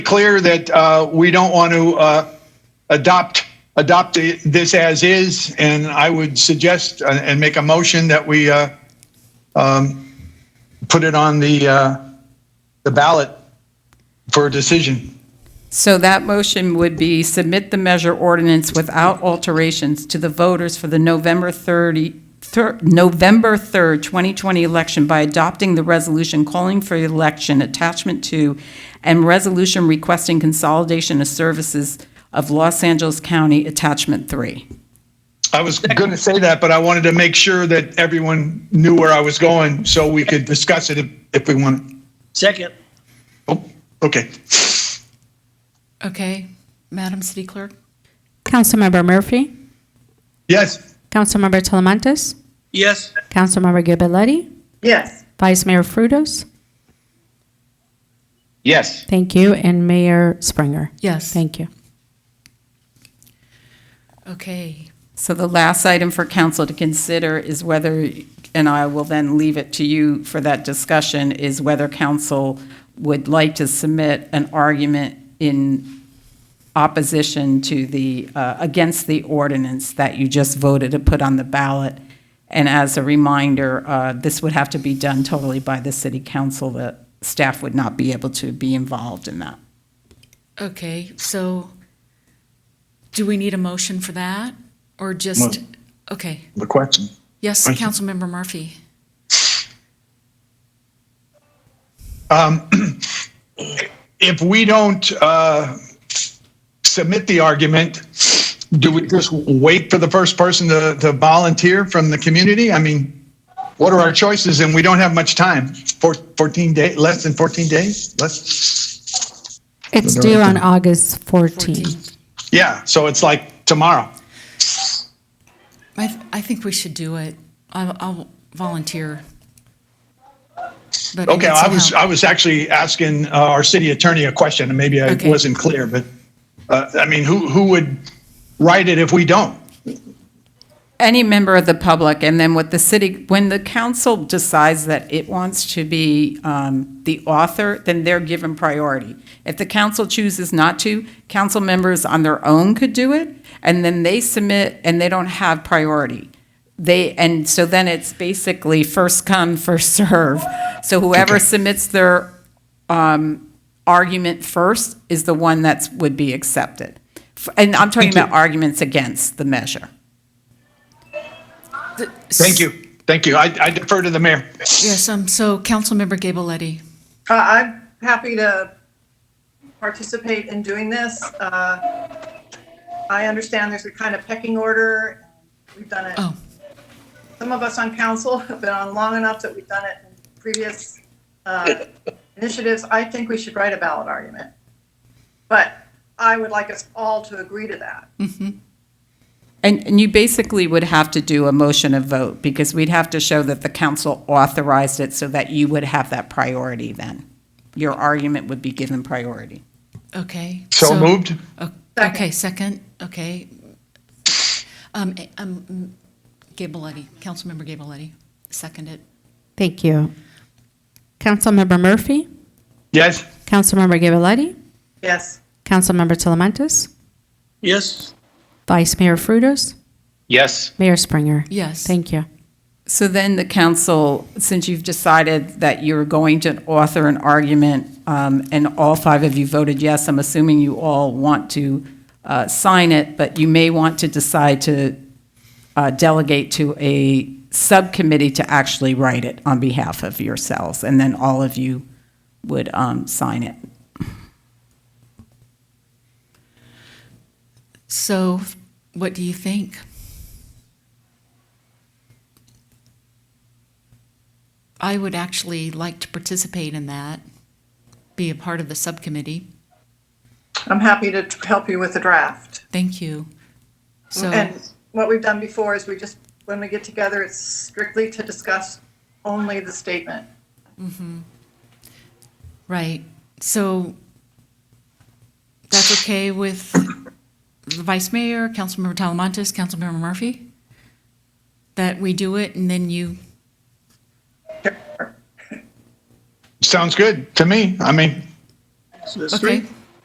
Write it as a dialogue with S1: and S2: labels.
S1: clear that uh, we don't want to uh, adopt adopt i- this as is, and I would suggest uh, and make a motion that we uh, um, put it on the uh, the ballot for a decision.
S2: So that motion would be submit the measure ordinance without alterations to the voters for the November 30, thir- November 3rd, 2020 election by adopting the resolution calling for election, attachment two, and resolution requesting consolidation of services of Los Angeles County, attachment three.
S1: I was going to say that, but I wanted to make sure that everyone knew where I was going, so we could discuss it if, if we want.
S3: Second.
S1: Oh, okay.
S4: Okay, Madam City Clerk?
S5: Councilmember Murphy,
S1: Yes.
S5: Councilmember Talamantes,
S3: Yes.
S5: Councilmember Ghiberletti,
S6: Yes,
S5: Vice Mayor Frutos.
S7: Yes.
S5: Thank you, and Mayor Springer.
S4: Yes.
S5: Thank you.
S4: Okay,
S2: So the last item for council to consider is whether, and I will then leave it to you for that discussion, is whether council would like to submit an argument in opposition to the, uh, against the ordinance that you just voted to put on the ballot. And as a reminder, uh, this would have to be done totally by the city council. The staff would not be able to be involved in that.
S4: okay, so do we need a motion for that? Or just, okay,
S1: The question.
S4: yes,
S1: Thank you.
S4: Councilmember Murphy?
S1: if we don't uh, submit the argument, do we just wait for the first person to, to volunteer from the community? I mean, what are our choices? And we don't have much time. Four, 14 days, less than 14 days? Less,
S5: It's due on August 14th.
S1: yeah. So it's like tomorrow.
S4: I, th- I think we should do it. I'll, I'll volunteer. But
S1: Okay.
S4: need
S1: I
S4: some
S1: was,
S4: help.
S1: I was actually asking uh, our city attorney a question and maybe I
S4: Okay.
S1: wasn't clear, but uh, I mean, who, who would write it if we don't?
S2: any member of the public, and then what the city, when the council decides that it wants to be um, the author, then they're given priority. If the council chooses not to, council members on their own could do it, and then they submit, and they don't have priority. They, and so then it's basically first come, first serve. So whoever submits their um, argument first is the one that's, would be accepted. F- And I'm talking about arguments against the measure.
S1: Thank you. Thank you. I, I defer to the mayor.
S4: Yes, um, so Councilmember Gabeletti,
S6: uh, I'm happy to participate in doing this. Uh, I understand there's a kind of pecking order. We've done it,
S4: oh,
S6: some of us on council have been on long enough that we've done it in previous uh, initiatives. I think we should write a ballot argument. But I would like us all to agree to that.
S2: And, and you basically would have to do a motion of vote, because we'd have to show that the council authorized it so that you would have that priority then. Your argument would be given priority.
S4: okay.
S1: So moved?
S4: O-
S6: Second.
S4: Okay, second, okay. Um, eh, um, Gabeletti, Councilmember Gabeletti, seconded.
S5: Thank you. Councilmember Murphy,
S1: Yes.
S5: Councilmember Ghiberletti,
S6: Yes,
S5: Councilmember Talamantes,
S3: Yes.
S5: Vice Mayor Frutos,
S7: Yes.
S5: Mayor Springer.
S4: Yes.
S5: Thank you.
S2: So then the council, since you've decided that you're going to author an argument, um, and all five of you voted yes, I'm assuming you all want to uh, sign it, but you may want to decide to uh, delegate to a subcommittee to actually write it on behalf of yourselves, and then all of you would um, sign it.
S4: So what do you think? I would actually like to participate in that, be a part of the subcommittee.
S6: I'm happy to t- help you with the draft.
S4: Thank you. So,
S6: And what we've done before is we just, when we get together, it's strictly to discuss only the statement.
S4: right. So that's okay with the vice mayor, Councilmember Talamantes, Councilmember Murphy? That we do it and then you,
S1: Sounds good to me. I mean,
S3: That's
S4: okay,
S3: right.